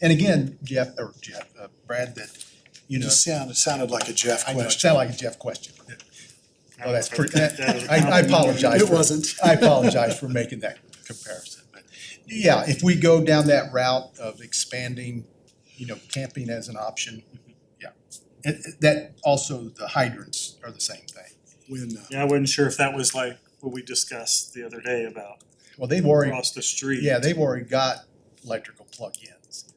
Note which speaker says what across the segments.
Speaker 1: And again, Jeff, or Jeff, uh, Brad, that, you know,
Speaker 2: Just sound, it sounded like a Jeff
Speaker 1: I know, it
Speaker 2: question.
Speaker 1: sounded like a Jeff question. Oh, that's pretty, that- I, I apologize.
Speaker 2: It
Speaker 1: for-
Speaker 2: wasn't.
Speaker 1: I apologize for making that comparison, but yeah, if we go down that route of expanding, you know, camping as an option, yeah. It, it- that, also the hydrants are the same thing.
Speaker 2: When, uh,
Speaker 3: Yeah, I wasn't sure if that was like what we discussed the other day about
Speaker 1: Well, they've already,
Speaker 3: across the street.
Speaker 1: yeah, they've already got electrical plug-ins.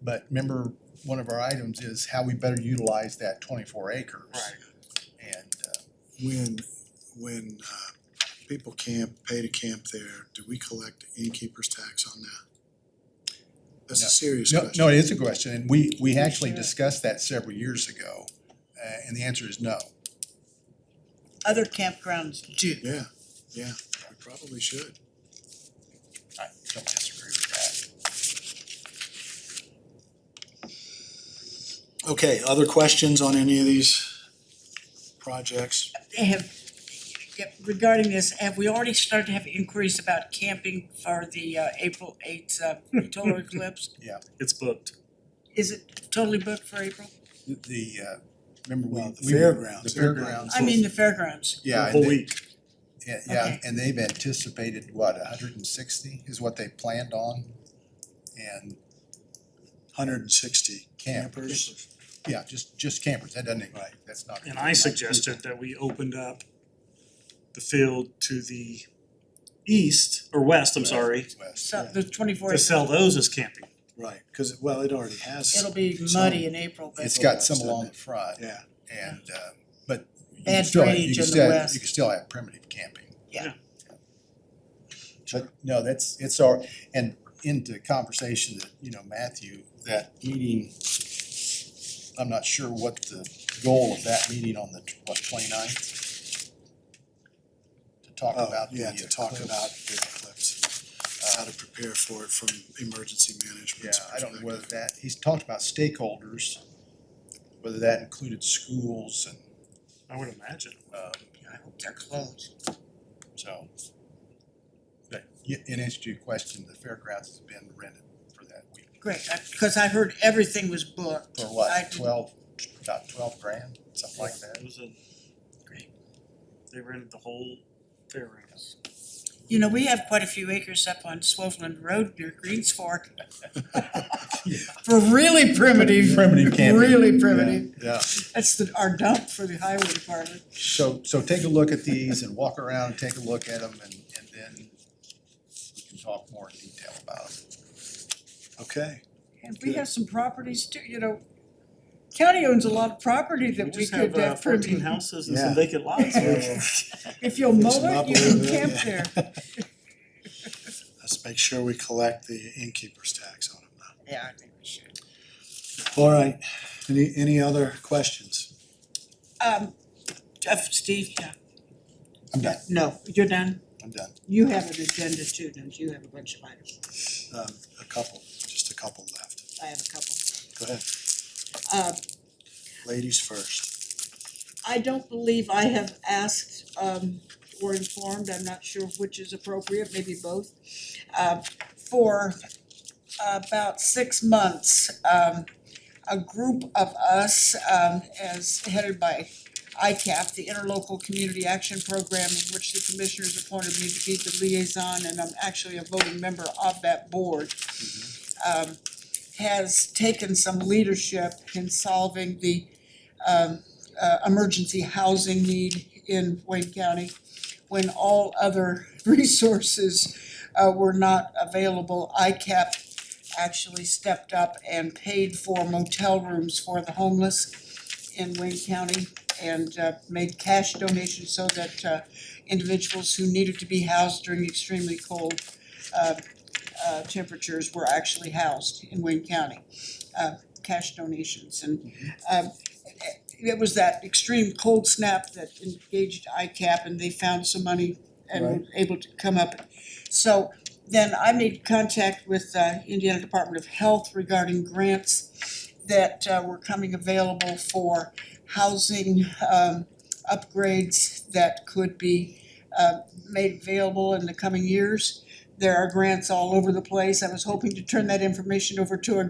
Speaker 1: But remember, one of our items is how we better utilize that twenty-four acres.
Speaker 3: Right.
Speaker 1: And, uh,
Speaker 2: when, when uh, people camp, pay to camp there, do we collect innkeeper's tax on that? That's a
Speaker 1: No.
Speaker 2: serious
Speaker 1: no,
Speaker 2: question.
Speaker 1: no, it is a question, and we, we actually discussed that several years ago, uh, and the answer is no.
Speaker 4: Other campgrounds do.
Speaker 2: Yeah, yeah, we probably should.
Speaker 1: I don't disagree with that.
Speaker 2: Okay, other questions on any of these projects?
Speaker 4: Have, yep, regarding this, have we already started to have inquiries about camping for the uh, April eighth uh, total eclipse?
Speaker 3: It's booked.
Speaker 4: Is it totally booked for April?
Speaker 1: The, uh, remember we.
Speaker 2: Well, the
Speaker 1: we were-
Speaker 2: fairgrounds.
Speaker 1: The fairgrounds.
Speaker 4: I mean, the fairgrounds.
Speaker 1: Yeah,
Speaker 3: The
Speaker 1: and
Speaker 3: whole
Speaker 1: they,
Speaker 3: week.
Speaker 1: yeah, yeah,
Speaker 4: Okay.
Speaker 1: and they've anticipated, what, hundred and sixty is what they planned on? And
Speaker 2: Hundred and sixty
Speaker 1: campers,
Speaker 2: campers.
Speaker 1: yeah, just, just campers, that doesn't, right, that's not.
Speaker 3: And I suggested that we opened up the field to the east or west, I'm sorry,
Speaker 1: West.
Speaker 4: So the twenty-four,
Speaker 3: to sell those as camping.
Speaker 2: Right, cause, well, it already has.
Speaker 4: it'll be muddy in April, but
Speaker 1: It's got some along the front
Speaker 2: Yeah,
Speaker 1: and, uh, but you can
Speaker 4: Bad
Speaker 1: still, have- you
Speaker 4: drainage
Speaker 1: can
Speaker 4: in the
Speaker 1: still, have-
Speaker 4: west.
Speaker 1: you can still have primitive camping.
Speaker 4: Yeah.
Speaker 1: But no, that's, it's our, and into conversation that, you know, Matthew, that meeting, I'm not sure what the goal of that meeting on the, tw- what, twenty-ninth? To talk
Speaker 2: oh,
Speaker 1: about. the uh,
Speaker 2: yeah, to talk
Speaker 1: eclipse.
Speaker 2: about the eclipse, how to prepare for it from emergency
Speaker 1: Yeah,
Speaker 2: management
Speaker 1: I don't know whether
Speaker 2: perspective.
Speaker 1: that, he's talked about stakeholders, whether that included schools and,
Speaker 3: I would imagine.
Speaker 1: um,
Speaker 4: I hope they're closed.
Speaker 1: so. But, yeah, in answer to your question, the fairgrounds has been rented for that week,
Speaker 4: Great, I- because I heard everything was booked.
Speaker 1: for
Speaker 4: I
Speaker 1: what,
Speaker 4: didn't-
Speaker 1: twelve, about twelve grand, something like that?
Speaker 3: It was a,
Speaker 4: Great.
Speaker 3: they rented the whole fairgrounds.
Speaker 4: You know, we have quite a few acres up on Swoveland Road near Greens Fork. For really primitive.
Speaker 1: Primitive camping.
Speaker 4: Really primitive.
Speaker 1: Yeah,
Speaker 4: That's the, our dump for the highway department.
Speaker 1: so, so take a look at these and walk around and take a look at them and, and then we can talk more in detail about it.
Speaker 2: Okay,
Speaker 4: And we have some properties too, you know, county owns a lot of property that we
Speaker 3: just
Speaker 4: could
Speaker 3: have uh,
Speaker 4: have
Speaker 3: fourteen
Speaker 4: primitive.
Speaker 3: houses and some
Speaker 2: Yeah.
Speaker 3: vacant lots.
Speaker 2: Yeah.
Speaker 4: If you'll
Speaker 2: Fix
Speaker 4: mow
Speaker 2: them up
Speaker 4: it,
Speaker 2: a
Speaker 4: you
Speaker 2: little
Speaker 4: can
Speaker 2: bit,
Speaker 4: camp
Speaker 2: yeah.
Speaker 4: there.
Speaker 2: let's make sure we collect the innkeeper's tax on them now.
Speaker 4: Yeah, I think we should.
Speaker 2: All right, any, any other questions?
Speaker 4: Um, Jeff, Steve, yeah.
Speaker 1: I'm done.
Speaker 4: No, you're done?
Speaker 2: I'm done.
Speaker 4: You have an agenda too, don't you? You have a bunch of items.
Speaker 2: Um, a couple, just a couple left.
Speaker 4: I have a couple.
Speaker 2: Go ahead,
Speaker 4: Uh,
Speaker 2: ladies first.
Speaker 4: I don't believe I have asked um or informed, I'm not sure which is appropriate, maybe both. Uh for about six months, um a group of us um as headed by ICAP, the Interlocal Community Action Program, in which the commissioners appointed me to be the liaison and I'm actually a voting member of that board. Um has taken some leadership in solving the um uh emergency housing need in Wayne County when all other resources uh were not available. ICAP actually stepped up and paid for motel rooms for the homeless in Wayne County and uh made cash donations so that uh individuals who needed to be housed during extremely cold uh uh temperatures were actually housed in Wayne County. Uh cash donations and um it was that extreme cold snap that engaged ICAP and they found some money and were able to come up. So then I made contact with uh Indiana Department of Health regarding grants that uh were coming available for housing um upgrades that could be uh made available in the coming years There are grants all over the place. I was hoping to turn that information over to a